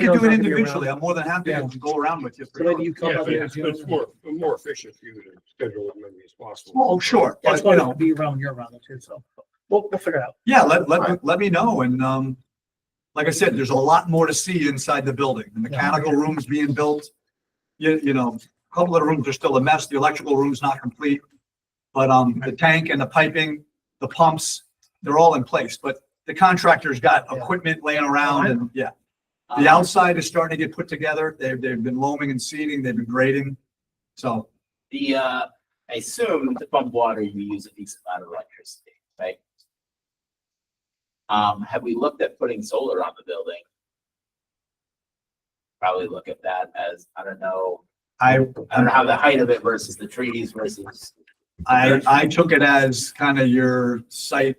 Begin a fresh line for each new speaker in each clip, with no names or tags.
can
knows
do
how
it
to be
individually.
around.
I'm more than happy
Yeah.
to go around with you. for
So maybe
sure.
you come
Yeah,
up
but
here.
it's, it's more, more efficient for you to schedule as many as possible.
Oh, sure.
That's
But,
why
you
it'll
know,
be around your round too, so we'll, we'll figure it out.
yeah, let, let,
Right.
let me know. And, um, like I said, there's a lot more to see inside the building. The mechanical room's being built. You, you know, a couple of the rooms are still a mess. The electrical room's not complete. But, um, the tank and the piping, the pumps, they're all in place, but the contractor's got
Yeah. Uh,
equipment laying around and, yeah.
Um,
The outside is starting to get put together. They've, they've been loaming and seeding, they've been grading. So
The, uh, I assume to pump water, you use a decent amount of electricity, right? Um, have we looked at putting solar on the building? Probably look at that as, I don't know,
I,
I don't know how the height of it versus the trees versus,
I, I took it as kind of your site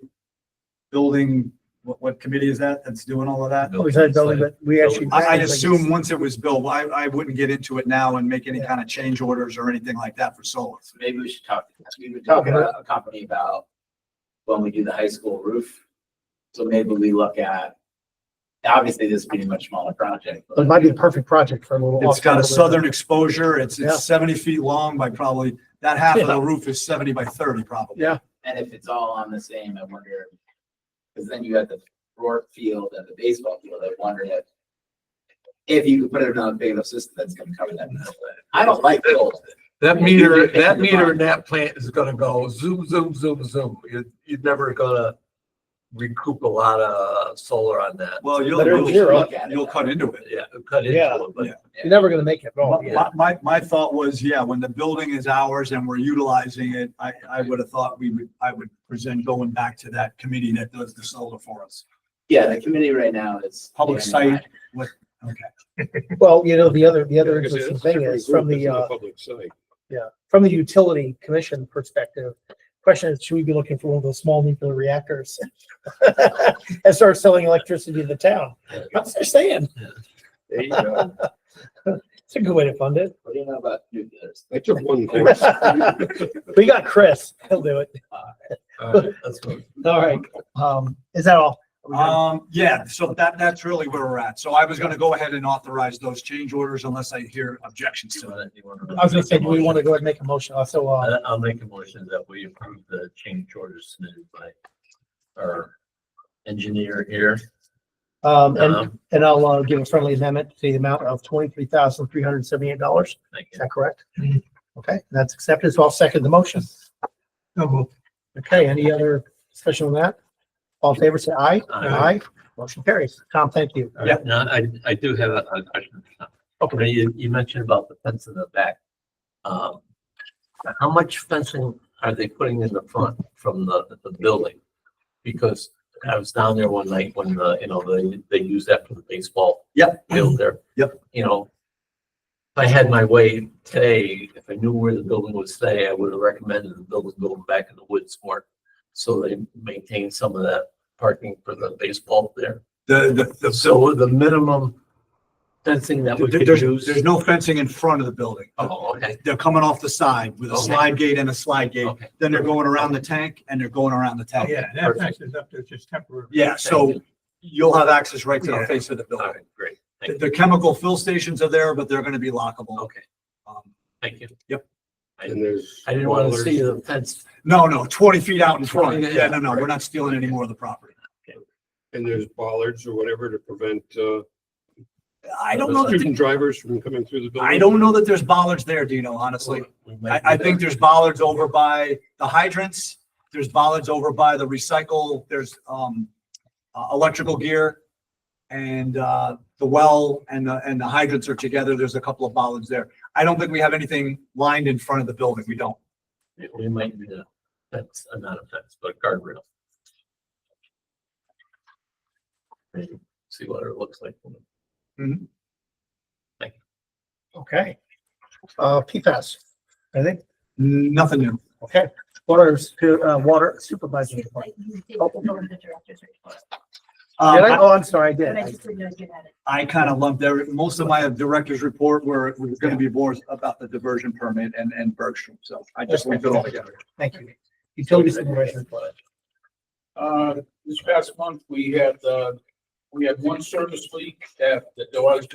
building, what, what committee is that that's doing all of that?
We said building, but we actually.
I, I assume once it was built, I, I wouldn't get into it now and make any kind of change orders or anything like that for solar.
so maybe we should talk, we were talking about a company about when we do the high school roof. So maybe we look at, obviously this being a much smaller project.
But It might be the perfect project for a little.
It's got a
off-campus.
southern exposure. It's,
Yeah.
it's seventy feet long by probably, that half of
Yeah.
the roof is seventy by thirty probably.
Yeah,
And if it's all on the same, I wonder, because then you got the Rourke field and the baseball field, I wonder if if you could put it on a big enough system that's gonna cover that. middle. I don't like gold.
That meter, that meter in that plant is gonna go zoom, zoom, zoom, zoom. You're, you're never gonna recoup a lot of solar on that.
Well, you'll,
But it'll
you'll,
zero.
you'll cut into it.
Yeah, cut
Yeah.
into it, but
you're never gonna make it.
My-
wrong.
Oh, yeah.
My, my, my thought was, yeah, when the building is ours and we're utilizing it, I, I would have thought we would, I would present going back to that committee that does the solar for us.
Yeah, the committee right now is.
Public site.
Well, you know, the other, the other
Because it's
interesting
a
thing
different
is from the,
group, it's in
uh,
Public site.
from the utility commission perspective, question is, should we be looking for one of those small nuclear reactors? And start selling electricity to the town? That's what they're saying.
There you go.
It's a good way to fund it.
What do you know about nuclears?
I took one course.
We got Chris. He'll do it.
all right, that's good.
All right. Uh, Um, is that all? Are we done?
Um, yeah, so that, that's really where we're at. So I was gonna go ahead and authorize those change orders unless I hear objections to it.
I was gonna say, do we want to go ahead and make a motion? Also, uh,
I- I'll make a motion that we approve the change orders submitted by our engineer here.
um,
Uh-huh.
and,
Um,
and I'll, uh, give a friendly amendment to the amount of twenty-three thousand, three hundred and seventy-eight dollars.
thank
Is
you.
that correct? Okay, that's accepted. So I'll second the motion. Okay, any other discussion on that? All in favor, say aye.
Aye.
Motion carries. Tom, thank you.
All right, Now, I, I do have a a question. Okay, you, you mentioned about the fence in the back. Um, how much fencing are they putting in the front from the, the building? Because I was down there one night when, the you know, they, they use that for the baseball.
Yep.
Field there.
Yep.
You know, if I had my way today, if I knew where the building would stay, I would have recommended the building going back in the woods more. So they maintain some of that parking for the baseball there.
The, the, the,
So the minimum fencing that we could
there's, there's
use.
no fencing in front of the building.
Oh, okay,
They're coming off the side with a
Okay. Oh.
slide gate and a slide gate.
okay.
Then they're going around the tank and they're going around the
Oh,
tank.
Yeah, that fence is up there just temporary.
Yeah, so you'll have access right to the
Yeah.
face of the
All
building.
right, great.
The,
Thank you.
the chemical fill stations are there, but they're gonna be lockable.
Okay,
Um,
thank you.
Yep.
And there's.
I didn't want to
boilers.
see the fence.
No, no, twenty feet out in front.
Yeah, yeah,
Yeah, no, no, we're not stealing any more of the property.
And there's bollards or whatever to prevent, uh,
I don't know, that
student
the-
drivers from coming through the building.
I don't know that there's bollards there, Dino, honestly.
We might
I,
do
I
that.
think there's bollards over by the hydrants. There's bollards over by the recycle. There's, um, uh, electrical gear. And, uh, the well and the, and the hydrants are together. There's a couple of bollards there. I don't think we have anything lined in front of the building. We don't.
We might do the fence, uh, not a fence, but a guardrail. Maybe See what it looks like.
Okay. Uh, PFAS, I think,
Nothing new.
okay. Water, su- uh, water supervisor.
Excuse
report.
me, you did go over the director's report,
Did I?
Um,
Oh, I'm sorry, I
but I
did.
just didn't know you had it.
I kind of lumped every, most of my director's report were, was going to be more about the diversion permit and, and Bergstrom. So I just lumped it all together.
Thank you. Utility supervisor. report.
Uh, this past month, we had, uh, we had one service leak at the Delaware